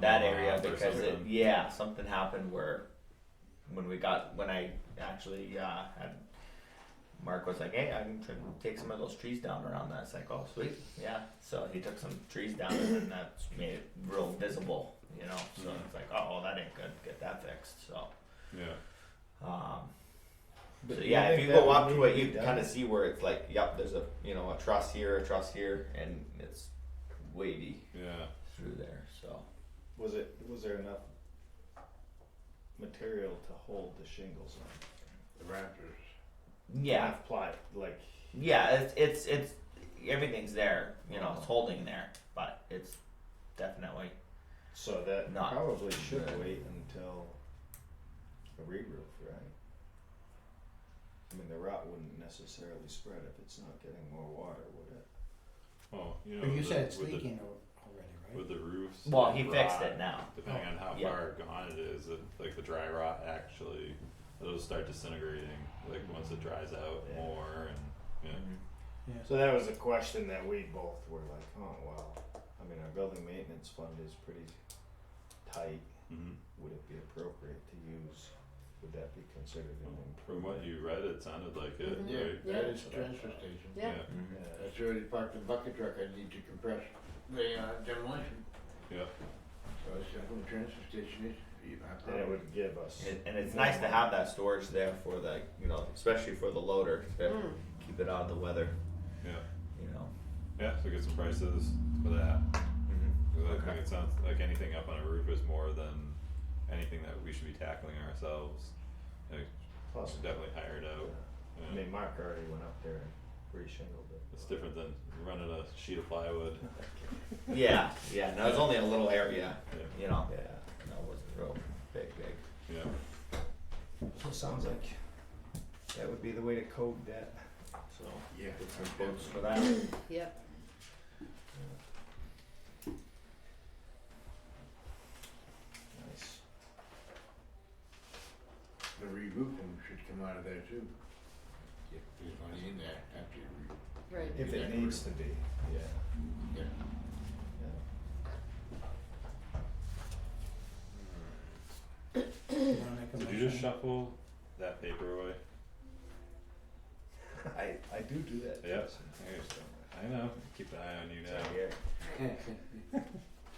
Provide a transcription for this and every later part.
that area Or because it, something. yeah, something happened where when we got when I actually uh, had Mark was like, hey, I'm trying to take some of those trees down around that. It's like, oh, sweet, yeah. So he took some trees down and then that's made it real visible, you know. So Yeah. it's like, oh, well, that ain't good. Get that fixed. So. Yeah. Um, But so do yeah, think if you that go would up need to it, be you done? kind of see where it's like, yep, there's a you know a truss here, a truss here, and it's wavy Yeah. through there. So Was it, was there enough material to hold the shingles on? The Raptors. yeah, Enough ply, like, yeah, it's it's it's everything's there. You Oh. know, it's holding there, but it's definitely so that Not probably should good. wait until a re-roof, right? I mean, the rot wouldn't necessarily spread if it's not getting more water, would it? Well, Oh, you know. But you with said the- it's with the- leaking al- already, right? With the roofs. well. and He fixed rot, it now. Depending on how Yeah. far gone it is, it, like the dry rot actually, those start disintegrating. Like once it dries out Yeah. more, and yeah, Mm-hmm. Yeah. So that was a question that we both were like, oh, wow. I mean, our building maintenance fund is pretty tight. mm-hmm. Would it be appropriate to use, would that be considered an from improvement? what you read, it sounded like it, Yeah, right? that Yeah. is the transfer station. Yeah. Mhm. Mm-hmm. Yeah. That's where they parked the bucket truck, I need to compress the uh, demolition. Yeah. So it's just from the transfer station, it's, you- I And it probably, would give us. And, and it's nice to have that storage there for the you know especially for the loader to Mm. keep it out of the weather. Yeah. You know. Yeah. So get some prices for that. Mm-hmm. Because I Okay. think it sounds like anything up on a roof is more than anything that we should be tackling ourselves. Like, we Plus, should definitely hire it out. I Yeah. mean, Mark already went up there and reshingled it. It's different than running a sheet of plywood. Yeah, yeah. No, it's only a little area. Yeah. You know. Yeah. No, it wasn't real big, big. Yeah. So it sounds like that would be the way to code that. So yeah. get some I'm quotes good. for that. Yep. Nice. The re-roofing should come out of there too. If there's money in there after you re- Right. If it needs to be, yeah. yeah. yeah. You wanna make a Did you just motion? shuffle that paper away? I, I do do that. Yeah. Jason. I know. Keep an eye on you It's now. right here.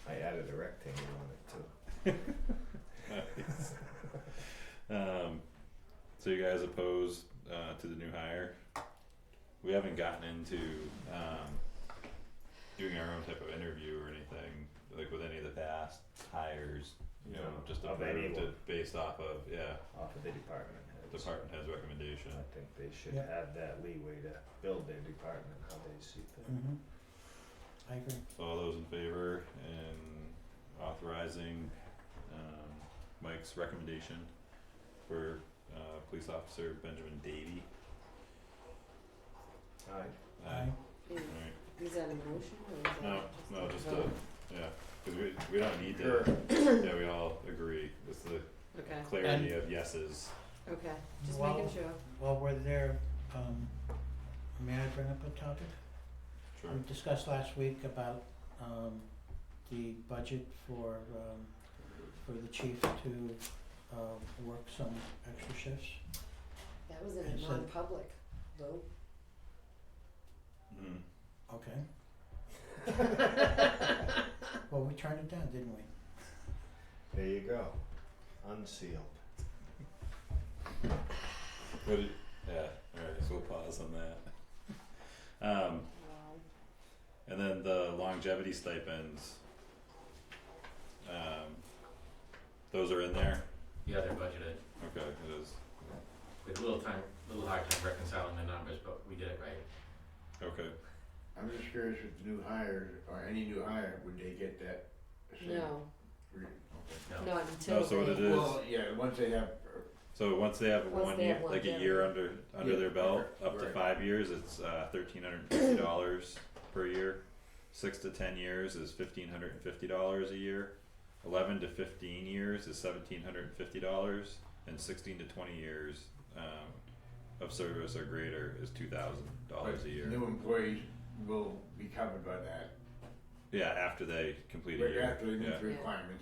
I added a rectangle on it too. Um, so you guys opposed uh, to the new hire? We haven't gotten into um, doing our own type of interview or anything like with any of the past hires. You know, No, just of approved anyone. it based off of yeah Off of the department heads. department head's recommendation. I think they should Yeah. have that leeway to build their department how they see things. Mhm. I agree. So all those in favor in authorizing um, Mike's recommendation for uh, police officer Benjamin Davy. Alright, Aye. Is, All right. is that a motion or is that No, just no, a just vote? a, yeah, cause we, we don't need to, Sure. yeah, we all agree, it's the Okay. clarity of yeses. Okay. Just Well- making sure. While we're there, um, may I bring up a topic? Sure. We Um, discussed last week about, um, the budget for, um, for the chief to, uh, work some extra shifts. That was in Is a it- non-public vote. Mm, Okay. Well, we turned it down, didn't we? there you go. Unsealed. what did, yeah, alright, so we'll pause on that. Um, Wow. and then the longevity stipends. Um, those are in there, Yeah, they're budgeted. okay, it is, We had a little time, a little hard time reconciling the numbers, but we did it right. okay, I'm just curious with the new hires, or any new hire, would they get that same No, re- No. not until No, so what they- it is- Well, yeah, once they have, uh, so once they have Once one they year, have one like a year. year under, under Yeah, their belt, okay, up to right. five years, it's uh thirteen hundred and fifty dollars per year. Six to ten years is fifteen hundred and fifty dollars a year. Eleven to fifteen years is seventeen hundred and fifty dollars, and sixteen to twenty years um of service or greater is two thousand dollars but a year. new employees will be covered by that, Yeah, after they complete a right year, after they meet yeah, the requirements,